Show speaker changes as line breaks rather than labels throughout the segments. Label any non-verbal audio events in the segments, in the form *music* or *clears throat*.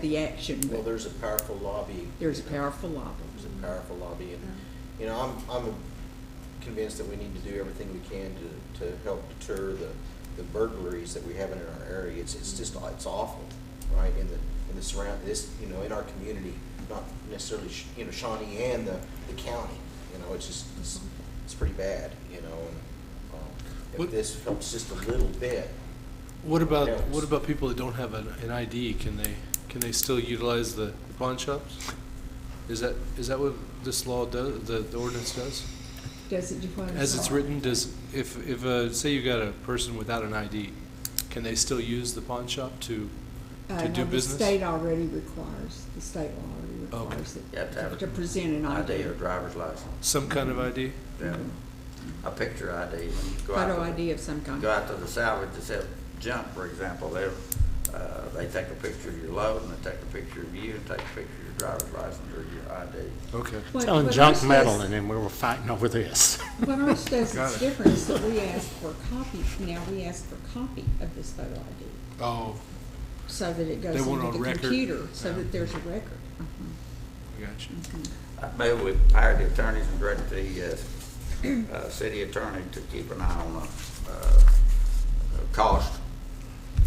the action,
Well,
but
there's a powerful lobby.
there's a powerful lobby.
There's a powerful lobby, and, you know, I'm, I'm convinced that we need to do everything we can to, to help deter the, the burglaries that we have in our area. It's, it's just, it's awful, right, in the, in the surround, this, you know, in our community, not necessarily, Sh- you know, Shawnee and the, the county, you know, it's just, it's, it's pretty bad, you know, and, um, if
What-
this helps just a little bit,
What about,
Yes.
what about people that don't have an, an ID? Can they, can they still utilize the pawn shops? Is that, is that what this law does, the, the ordinance does?
Does it define?
As it's written, does, if, if, uh, say you got a person without an ID, can they still use the pawn shop to,
Uh,
to
no,
do business?
The state already requires, the state law
Okay.
already requires
You have to have
it,
a
to present an
ID
ID.
or driver's license,
some kind of ID?
yeah. A picture ID. when you go out
Photo
to the-
ID of some kind.
Go out to the salvage that says junk, for example, they, uh, they take a picture of your load and they take a picture of you and take a picture of your driver's license or your ID.
Okay.
What-
Selling
what
junk
ours
metal,
does-
and then we were fighting over this.
What
*laughs*
ours does
Got
is
it.
different, is that we ask for a copy, now we ask for a copy of this photo ID,
Oh,
so that it goes
They want
into
on
the
record.
computer, so
Yeah.
that there's a record. Mhm,
gotcha.
mhm.
I move we hire the attorneys and direct the, uh, uh, city attorney to keep an eye on the, uh, cost.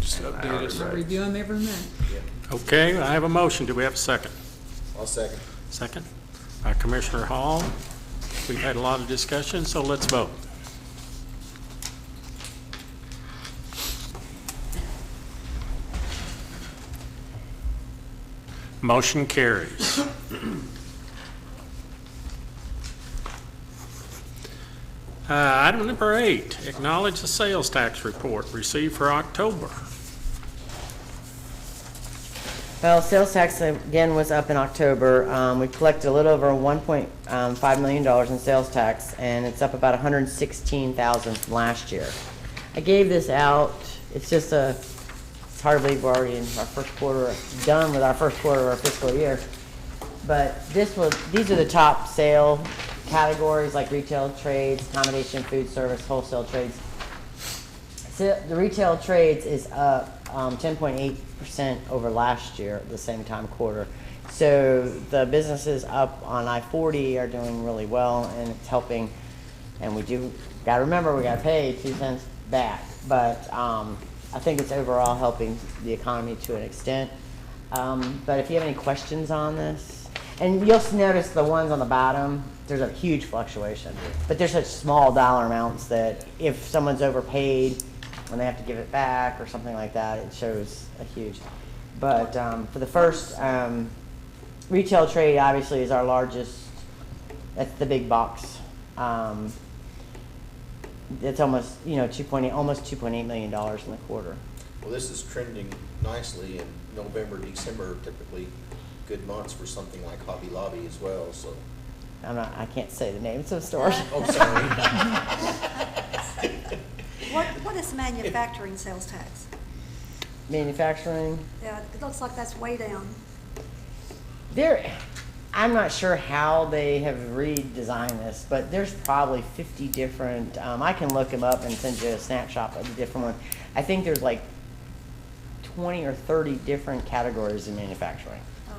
Just
And
update us.
hourly
I
Right.
review them every month.
yeah,
Okay, I have a motion. Do we have a second?
I'll second.
Second by Commissioner Hall. We've had a lot of discussion, so let's vote. Motion carries. *clears throat* Uh, Item number eight, acknowledge the sales tax report received for October.
Well, sales tax again was up in October. Um, we collected a little over one point um, five million dollars in sales tax, and it's up about 116000 hundred and sixteen thousand from last year. I gave this out, it's just a, it's hard to believe we're already in our first quarter, done with our first quarter of our fiscal year. But this was, these are the top sale categories, like retail trades, accommodation, food service, wholesale trades. So the retail trades is up um, 10.8% over last year, at the same time quarter. So the businesses up on I-40 are doing really well, and it's helping. And we do, gotta remember, we gotta pay two cents back. But um, I think it's overall helping the economy to an extent. Um, But if you have any questions on this, and you'll s- notice the ones on the bottom, there's a huge fluctuation. But they're such small dollar amounts that if someone's overpaid, when they have to give it back or something like that, it shows a huge. But um, for the first, um, retail trade obviously is our largest, that's the big box. Um, It's almost, you know, 2.8, almost 2.8 million dollars in the quarter.
Well, this is trending nicely in November, December are typically good months for something like Hobby Lobby as well, so.
I'm not, I can't say the names of stores.
Oh,
*laughs*
sorry.
*laughs* What, what is manufacturing sales tax?
Manufacturing,
Yeah, it looks like that's way down.
There, I'm not sure how they have redesigned this, but there's probably 50 different. Um, I can look them up and send you a snapshot of the different one. I think there's like 20 or 30 different categories in manufacturing,
Oh,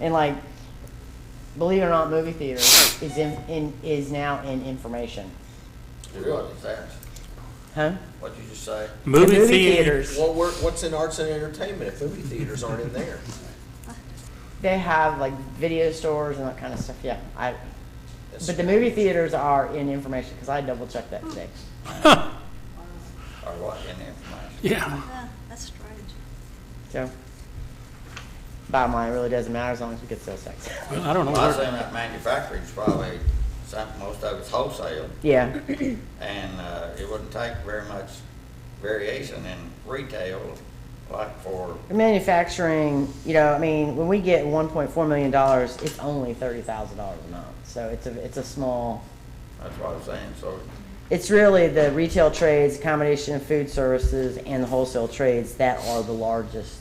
and like, believe it or not, movie theater is in, in is now in information,
Really?
What is that?
huh?
What'd you just say?
The
Movie theater.
theaters.
Well, we're, what's in arts and entertainment if movie theaters aren't in
*laughs*
there?
uh,
They have like video stores and that kind of stuff. Yeah, I.
That's-
But the movie theaters are in information because I double checked that today.
Or what, in the information?
*laughs* Yeah.
yeah, uh, that's strange.
So, bottom line, it really doesn't matter as long as we get sales tax. *laughs*
Well, I don't know.
Well, I
where-
assume that manufacturing's probably, some, most of it's wholesale,
Yeah,
and, uh, it wouldn't take very much variation in retail, like for,
manufacturing, you know, I mean, when we get one point four million dollars, it's only thirty thousand dollars a month. So it's a, it's a small,
that's what I'm saying, so
it's really the retail trades, accommodation and food services, and the wholesale trades that are the largest.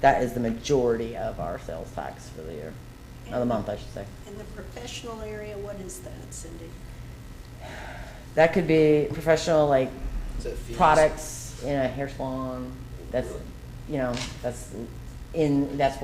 That is the majority of our sales tax for the year, of the month, I should say.
In the professional area, what is that, Cindy?
That could be professional, like
Is that fees?
products in a hair salon. That's, you know, that's in, that's